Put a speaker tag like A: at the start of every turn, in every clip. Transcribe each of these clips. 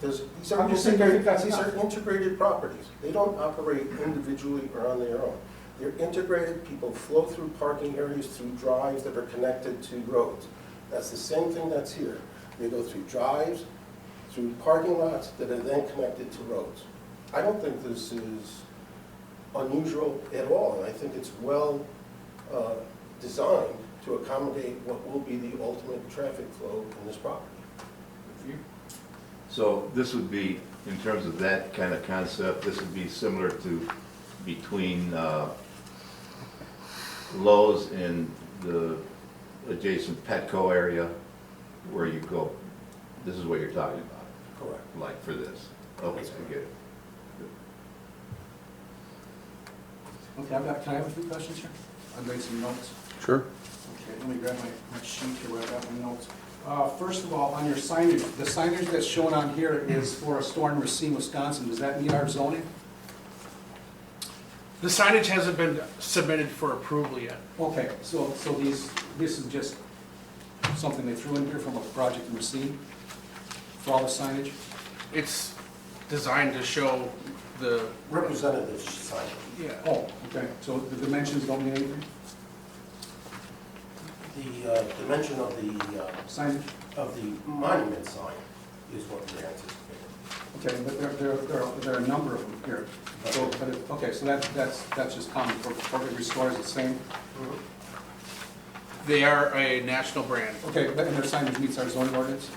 A: There's, these are
B: I'm just saying, I think
A: integrated,
B: that's
A: these are
B: enough.
A: integrated properties. They don't operate individually or on their own. They're integrated, people flow through parking areas, through drives that are connected to roads. That's the same thing that's here. They go through drives, through parking lots that are then connected to roads. I don't think this is unusual at all, and I think it's well uh, designed to accommodate what will be the ultimate traffic flow in this property.
C: So this would be, in terms of that kind of concept, this would be similar to between uh, Lowe's and the adjacent Petco area where you go, this is what you're talking about,
A: Correct.
C: like for this. Okay, I get it.
B: Okay, I've got, can I have a few questions here? I've made some notes.
D: Sure.
B: Okay, let me grab my, my sheet here where I've got my notes. Uh, first of all, on your signage, the signage that's shown on here is for a store in Racine, Wisconsin. Does that meet our zoning?
E: The signage hasn't been submitted for approval yet.
B: Okay, so, so these, this is just something they threw in here from a project in Racine for all the signage?
E: It's designed to show the,
A: Representative sign.
E: yeah,
B: Oh, okay, so the dimensions don't mean anything?
A: The uh, dimension of the, uh,
B: Signage?
A: of the monument sign is what we're anticipating.
B: Okay, but there, there, there are, there are a number of them here. So, but it- okay, so that, that's, that's just common for, for every store is the same?
E: they are a national brand.
B: Okay, but- and their signage meets our zoning ordinance?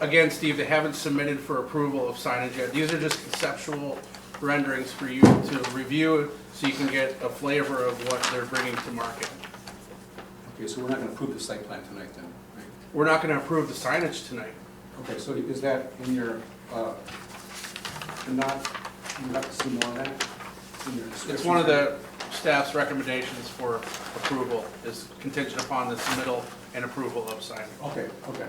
E: Again, Steve, they haven't submitted for approval of signage yet. These are just conceptual renderings for you to review so you can get a flavor of what they're bringing to market.
B: Okay, so we're not gonna approve the site plan tonight then, right?
E: We're not going to approve the signage tonight.
B: Okay, so is that in your, uh, you're not, you'd like to see more of that? in your
E: It's
B: description?
E: one of the staff's recommendations for approval is contingent upon the submittal and approval of signage.
B: Okay, okay.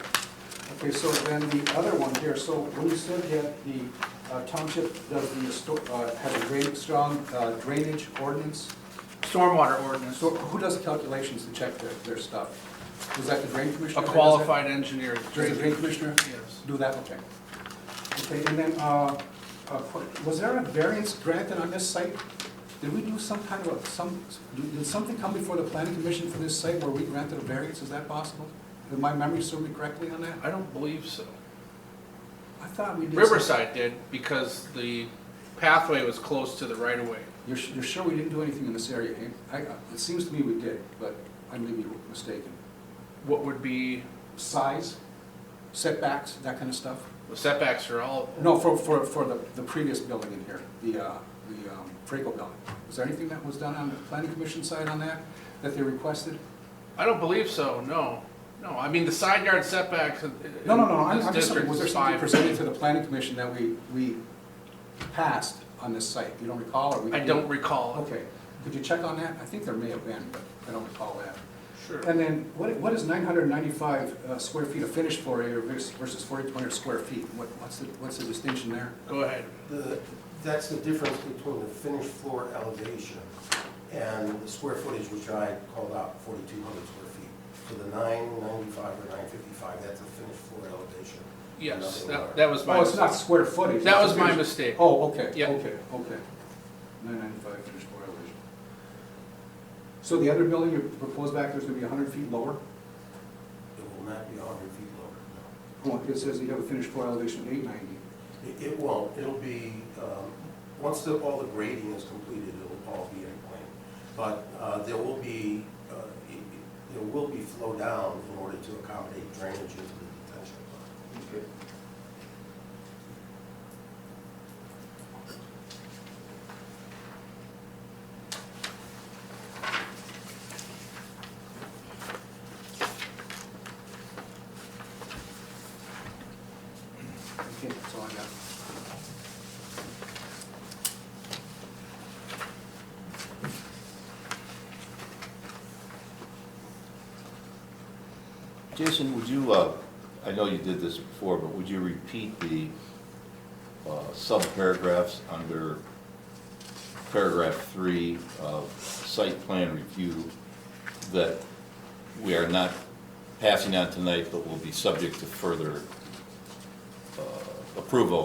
B: Okay, so then the other one here, so when you said that the uh, township does the, sto- uh, has a very strong uh, drainage ordinance,
E: Stormwater ordinance.
B: so who does the calculations to check their, their stuff? Is that the drain commissioner? that
E: A
B: does it?
E: qualified engineer.
B: Does the drain commissioner?
E: Yes.
B: Do that, okay. Okay, and then, uh, uh, was there a variance granted on this site? Did we do some kind of, a- some, did something come before the planning commission for this site where we granted a variance, is that possible? Did my memory serve me correctly on that?
E: I don't believe so.
B: I thought we did. some-
E: Riverside did because the pathway was close to the right of way.
B: You're, su- you're sure we didn't do anything in this area, eh? I, I- it seems to me we did, but I may be mistaken.
E: What would be,
B: Size, setbacks, that kind of stuff?
E: the setbacks are all,
B: No, for, for, for the, the previous building in here, the, uh, the, um, Franco building. Was there anything that was done on the planning commission side on that, that they requested?
E: I don't believe so, no. No, I mean, the side yard setbacks in in
B: No, no, no, I'm,
E: this
B: I'm just,
E: district
B: was there
E: is
B: something
E: five.
B: presented to the planning commission that we, we passed on this site? You don't recall, or we?
E: I don't recall.
B: Okay, could you check on that? I think there may have been, but I don't recall that.
E: Sure.
B: And then, what, what is nine hundred ninety-five, uh, square feet of finished floor area vers- versus forty-two hundred square feet? What, what's the, what's the distinction there?
E: Go ahead.
A: The, that's the difference between the finished floor elevation and the square footage, which I called out, 4,200 square feet. So the 995 or 955, that's the finished floor elevation.
E: Yes,
A: Nothing lower.
E: that, that was my.
B: Oh, it's not square footage.
E: That
B: it's
E: was my
B: finished-
E: mistake.
B: Oh, okay, okay,
E: Yeah.
B: okay. Nine ninety-five finished floor elevation. So the other building you proposed back there is gonna be hundred feet lower?
A: It will not be 100 feet lower,
B: Oh, It says you have a finished floor elevation of eight ninety.
A: no. It, it won't, it'll be, um, once the, all the grading is completed, it'll all be in plane. But uh, there will be, uh, it- it- there will be flow down in order to accommodate drainage into the detention pond.
B: Okay, that's all I got.
C: Jason, would you, uh, I know you did this before, but would you repeat the uh, subparagraphs under paragraph three of site plan review that we are not passing on tonight, but will be subject to further uh, approval